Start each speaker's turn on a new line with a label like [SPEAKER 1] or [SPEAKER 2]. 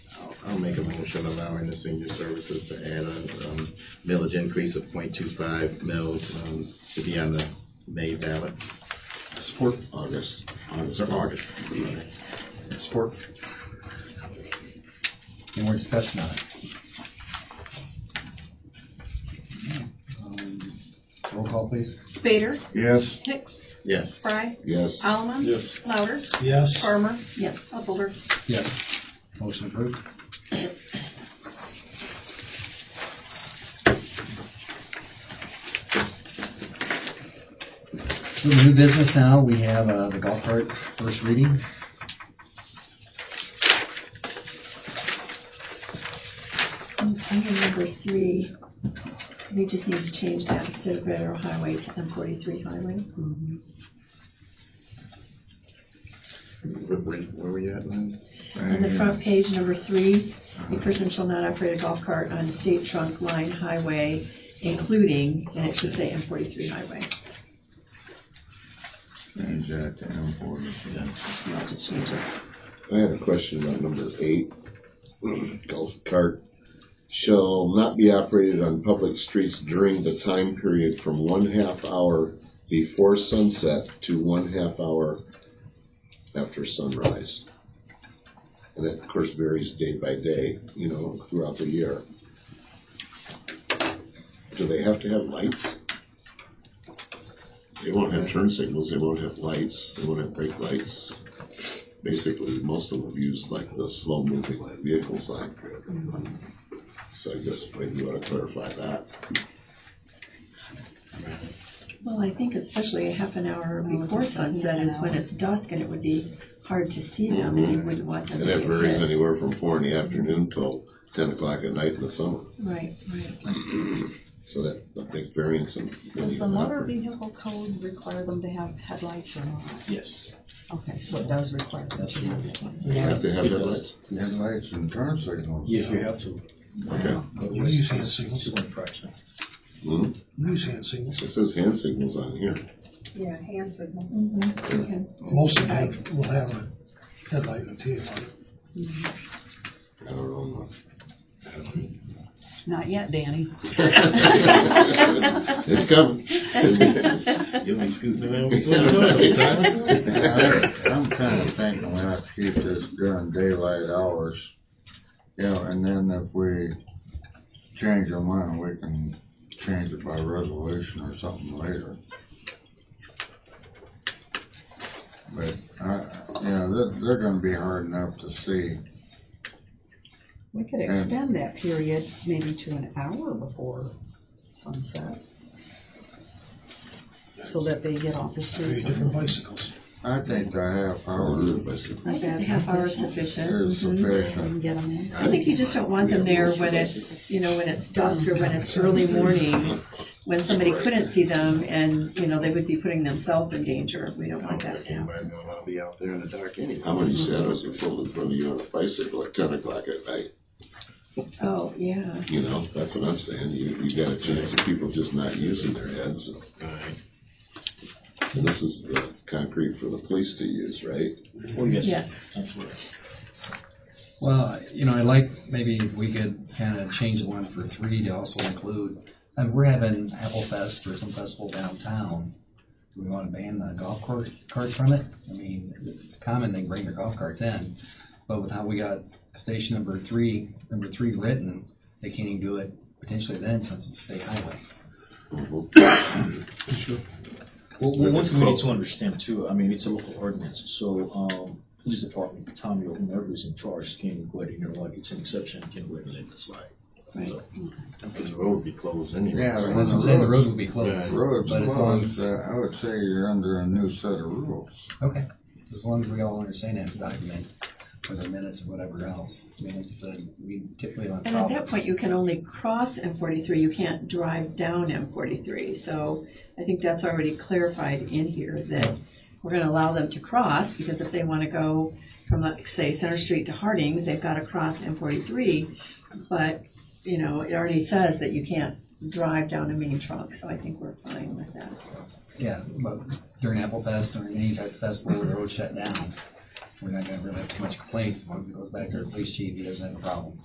[SPEAKER 1] make a motion allowing the senior services to add a um, millage increase of 0.25 mils um, to be on the May ballot.
[SPEAKER 2] Support.
[SPEAKER 1] August, August, or August. sorry.
[SPEAKER 2] Support.
[SPEAKER 3] Any more discussion on it? Um, Roll call, please.
[SPEAKER 4] Vader,
[SPEAKER 2] Yes.
[SPEAKER 4] Hicks,
[SPEAKER 1] Yes,
[SPEAKER 4] Fry,
[SPEAKER 2] Yes.
[SPEAKER 4] Alleman.
[SPEAKER 2] Yes.
[SPEAKER 4] Louder,
[SPEAKER 5] yes,
[SPEAKER 4] Farmer. Yes. Householder.
[SPEAKER 3] Yes. Motion approved. So the new business now, we have uh, the golf cart first reading.
[SPEAKER 6] Under number three, we just need to change that instead of federal highway to M forty-three highway.
[SPEAKER 1] where, where- where were you at, Lynn?
[SPEAKER 6] On the front page, number three, a person shall not operate a golf cart on state trunk line highway, including, and it should say M forty-three highway.
[SPEAKER 7] Change that to M forty.
[SPEAKER 6] And I'll just change it.
[SPEAKER 7] I had a question about number eight, golf cart. Shall not be operated on public streets during the time period from one half hour before sunset to one half hour after sunrise. And that, of course, varies day by day, you know, throughout the year. Do they have to have lights? They won't have turn signals, they won't have lights, they won't have brake lights basically, most of them use like the slow moving vehicle sign.
[SPEAKER 6] Mm-hmm.
[SPEAKER 7] So I guess maybe you ought to clarify that.
[SPEAKER 6] Well, I think especially a half an hour before sunset is when it's dusk and it would be hard to see them and you wouldn't want them
[SPEAKER 7] And
[SPEAKER 6] to
[SPEAKER 7] that
[SPEAKER 6] get
[SPEAKER 7] varies
[SPEAKER 6] hit.
[SPEAKER 7] anywhere from four in the afternoon till ten o'clock at night in the summer.
[SPEAKER 6] Right, right.
[SPEAKER 7] So that, a big variance in.
[SPEAKER 8] Does the motor vehicle code require them to have headlights or not?
[SPEAKER 2] Yes.
[SPEAKER 8] Okay, so it does require them to have headlights.
[SPEAKER 7] Have to have headlights.
[SPEAKER 5] Headlights and turn signals.
[SPEAKER 2] Yes, you have to.
[SPEAKER 7] Okay.
[SPEAKER 5] You use hand signals,
[SPEAKER 2] It's one fraction.
[SPEAKER 7] Hmm.
[SPEAKER 5] you use hand signals.
[SPEAKER 7] It says hand signals on here.
[SPEAKER 4] Yeah, hand signal.
[SPEAKER 6] Okay.
[SPEAKER 5] Most of them have- will have a headlight and a tail light.
[SPEAKER 7] I don't know.
[SPEAKER 8] Not yet, Danny.
[SPEAKER 7] It's coming.
[SPEAKER 1] You'll be scooting around.
[SPEAKER 7] Right.
[SPEAKER 9] I'm kind of thinking we have to keep this during daylight hours. Yeah, and then if we change our mind, we can change it by resolution or something later. But, uh, yeah, they're, they're gonna be hard enough to see.
[SPEAKER 8] We could extend that period maybe to an hour before sunset. So that they get off the
[SPEAKER 5] Three
[SPEAKER 8] streets.
[SPEAKER 5] different bicycles.
[SPEAKER 9] I think the half hour
[SPEAKER 6] I think a half hour is sufficient.
[SPEAKER 9] is
[SPEAKER 8] And
[SPEAKER 9] sufficient.
[SPEAKER 8] get them in.
[SPEAKER 6] I think you just don't want them there when it's, you know, when it's dusk or when it's early morning, when somebody couldn't see them and, you know, they would be putting themselves in danger. We don't want that to happen.
[SPEAKER 1] I'll be out there in the dark anyway.
[SPEAKER 7] How many shadows are pulled in front of you on a bicycle at ten o'clock at night?
[SPEAKER 6] Oh, yeah.
[SPEAKER 7] You know, that's what I'm saying. You, you got a chance of people just not using their heads.
[SPEAKER 1] Right.
[SPEAKER 7] And this is the concrete for the police to use, right?
[SPEAKER 2] Oh, yes.
[SPEAKER 6] Yes.
[SPEAKER 2] Absolutely.
[SPEAKER 3] Well, you know, I like, maybe we could kind of change the one for three to also include, and we're having Apple Fest or some festival downtown. Do we want to ban the golf cart, carts from it? I mean, it's common they bring their golf carts in, but with how we got station number three, number three written, they can't even do it potentially then since it's a state highway.
[SPEAKER 2] Well, well, one thing we need to understand too, I mean, it's a local ordinance, so, um, police department, Tommy or whomever is in charge can go ahead and, you know, like, it's an exception, can go ahead and let this slide.
[SPEAKER 6] Right.
[SPEAKER 1] Because the road would be closed anyway.
[SPEAKER 9] Yeah,
[SPEAKER 1] so-
[SPEAKER 9] when
[SPEAKER 3] As I'm saying, the road would be closed.
[SPEAKER 9] Roads,
[SPEAKER 3] But as long
[SPEAKER 9] closed,
[SPEAKER 3] as,
[SPEAKER 9] uh, I would say you're under a new set of rules.
[SPEAKER 3] okay, as long as we all understand that it's documented, whether minutes or whatever else. I mean, like you said, we typically don't.
[SPEAKER 6] And at
[SPEAKER 3] follow
[SPEAKER 6] that
[SPEAKER 3] this.
[SPEAKER 6] point, you can only cross M forty-three. You can't drive down M forty-three. So I think that's already clarified in here that we're gonna allow them to cross because if they wanna go from, like, say, Center Street to Harding's, they've gotta cross M forty-three. But, you know, it already says that you can't drive down a main trunk, so I think we're fine with that.
[SPEAKER 3] Yeah, but during Apple Fest, during any type of festival where the road's shut down, we're not gonna really have too much complaints, as long as it goes back to our police chief, he doesn't have a problem.